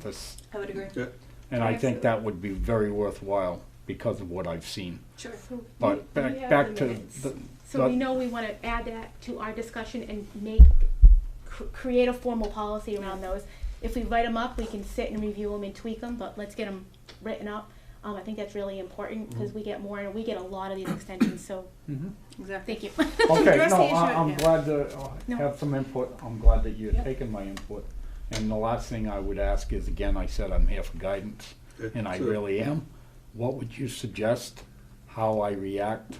this, I would agree. Yeah. and I think that would be very worthwhile because of what I've seen. Sure. So we- we But back, have back the to minutes. the, So we the- know we want to add that to our discussion and make, cr- create a formal policy around those. If we write them up, we can sit and review them and tweak them, but let's get them written up. Um, I think that's really important Mm-hmm. because we get more, and we get a lot of these extensions, so Mhm. Exactly. thank you. Okay, Address no, the issue I- at I'm hand. glad to uh, No. have some input, I'm glad that you're Yep. taking my input. And the last thing I would ask is, again, I said I'm here for guidance, Yeah, and I sure. really am. What would you suggest, how I react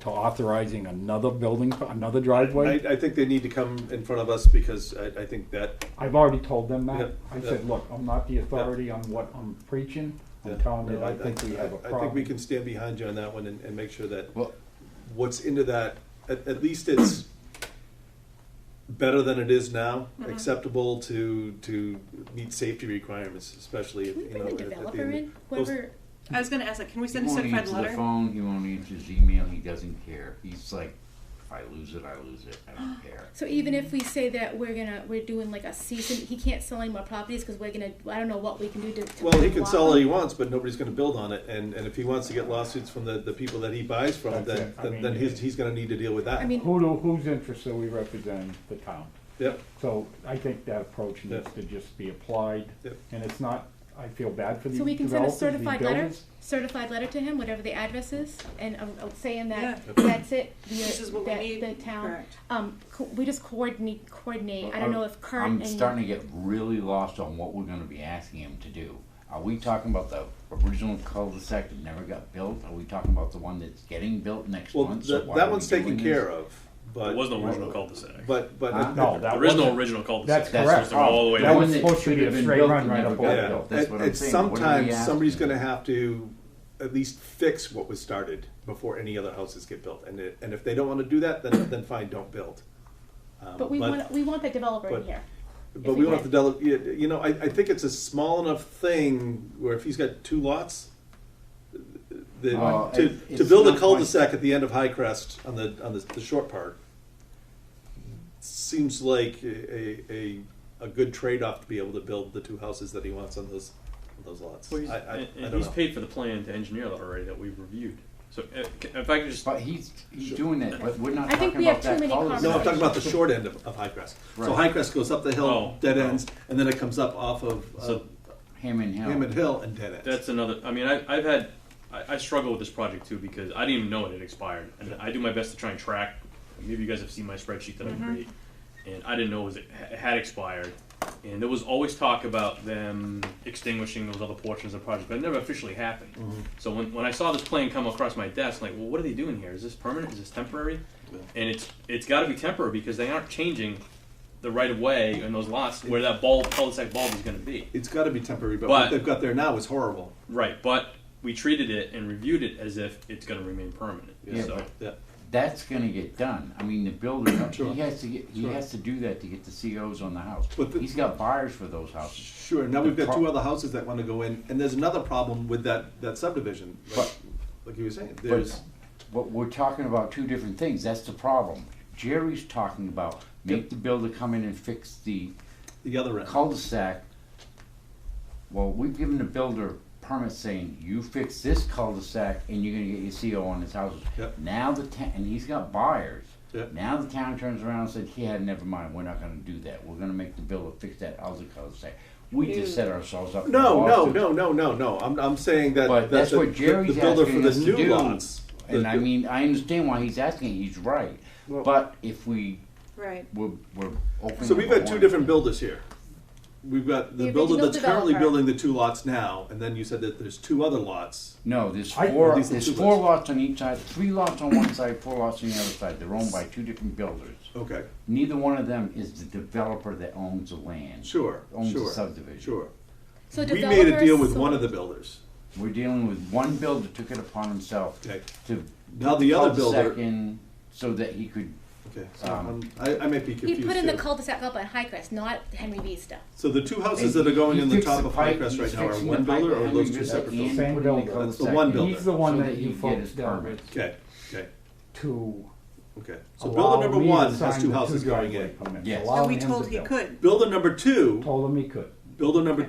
to authorizing another building, another I, driveway? I think they need to come in front of us because I, I think that, I've already told them Yeah, that. I yeah. said, look, I'm not the authority on what I'm preaching, I'm that- telling you, no, I think we have a I think we problem. can stand behind you on that one and, and make sure that Well, what's into that, at, at least it's better than it is now, Mm-hmm. acceptable to, to meet safety requirements, especially, if, Can we you know. bring at- the at the developer end. in, Those- whoever, I was going to ask that. Can we he send a won't certified answer the letter? phone, he won't answer his email, he doesn't care. He's like, if I lose it, I lose it, I don't care. so even if we say that we're gonna, we're doing like a season, he can't sell any more properties because we're gonna, I don't know what we can do to. to Well, he block can sell all them. he wants, but nobody's gonna build on it, and, and if he wants to get lawsuits from the, the people that he buys from, That's then, it. I then, mean, then he's, he's gonna need to deal with that. I mean, Who do, whose interests are we representing? The town. Yep, So I think that approach needs to Yeah. just be applied, Yep. and it's not, I feel bad for these So we can send a developers, these certified letter, builders. certified letter to him, whatever the address is, and um, uh, saying that, Yeah. that's it. This the- is what we that need. The town, Correct. um, co- we just coordinate, coordinate, I don't know if Kurt I'm starting and, to get really lost on what we're gonna be asking him to do. Are we talking about the original cul-de-sac that never got built? Are we talking about the one that's getting built next well, month? So that, why that are one's we doing taken this? care of, but. There was no original cul-de-sac. But, but. Huh? No, that There is no wasn't, original that's cul-de-sac. That's correct. the problem. all the way That down. was One that supposed to should be a have been straight built run and right never up got Oakdale. Yeah, built. That's it, what I'm it's saying. What are we sometimes, asking somebody's him? gonna have to at least fix what was started before any other houses get built, and it, and if they don't wanna do that, then, then fine, don't build. Um, but we want, we want that developer in but- here. But If we we want to can. develop, you you know, I, I think it's a small enough thing where if he's got two lots, the, Oh, to, it- to it's build a not like- cul-de-sac at the end of High Crest on the, on the, the short part seems like a, a, a good trade-off to be able to build the two houses that he wants on those, on those lots. I, Well, he's- I, I and- and don't he's know. paid for the plan to engineer that already that we've reviewed. So uh, c- if I could just, But he's, he's doing it, but we're not I think talking we have about that too many cul-de-sac. No, I'm talking about the short end of, of High Crest. So Right. High Crest goes up the hill, Oh, dead oh. ends, and then it comes up off of So- uh, Hammond Hill. Hammond Hill and dead ends. that's another, I mean, I, I've had, I, I struggle with this project too because I didn't even know it had expired. And I do my best to try and track, maybe you guys have seen my spreadsheet that I create. And I didn't know it, was, it ha- had expired. And there was always talk about them extinguishing those other portions of the project, but it never officially happened. So when, when I saw this plan come across my desk, I'm like, well, what are they doing here? Is this permanent? Is this temporary? And it's it's got to be temporary because they aren't changing the right of way in those lots where that bulb, cul-de-sac bulb, is going to be. It's got to be temporary, but, what But- they've got there now is horrible. Right, but we treated it and reviewed it as if it's going to remain permanent. Yeah, so but- Yeah. That's gonna get done. I mean, the builder, Sure. he has to get, he Sure. has to do that to get the COs on the house. But the- He's got buyers for those houses. Sure. Now we've The got pro- two other houses that want to go in, and there's another problem with that, that subdivision. Like, But- like you were saying, there's But, but we're talking about two different things, that's the problem. Jerry's talking about make the builder come in and fix the the other end. cul-de-sac. Well, we've given the builder permit saying, you fix this cul-de-sac and you're gonna get your CO on his houses. Yep. Now the town, and he's got buyers. Yep. Now the town turns around and says, yeah, never mind, we're not gonna do that, we're gonna make the builder fix that other cul-de-sac. We just set ourselves up. for No, no, lawsuits. no, no, no, no. I'm, I'm saying that But that's the, what Jerry's the builder asking for us the to new do. lots. the- And I mean, I understand why he's asking, he's right, Well- but if we, Right. we're, we're opening. so we've up a got two warrant. different builders here. We've got the, The builder original that's currently developer. building the two lots now, and then you said that there's two other lots. No, there's I- four, these are there's two four lots. lots on each side, three lots on one side, four lots on the other side, they're owned by two different builders. Okay, Neither one of them is the developer that owns the land. sure, Owns the sure, subdivision. sure. So we made a developer deal with sold- one of the builders. We're dealing with one builder took it upon himself Okay. to. Now put the other cul-de-sac builder- in So that he could, Okay, so Um, I'm- I, I might be confused. He put in the here. cul-de-sac up on Highcrest, not Henry B stuff. So the two houses And that are going he in the fixed top the of High pipe, Crest he's right now are fixing one the pipe builder or are behind those the two separate building. buildings? putting Same the builder. cul-de-sac That's the one in. builder. He's the one So that that he you can get folks his dealt permit. with Okay, okay, to okay. So allow builder me number to one sign has two the houses going driveway in. permits, Yes. allowing And we him to told he build. could. Builder number two, Told him he could. builder number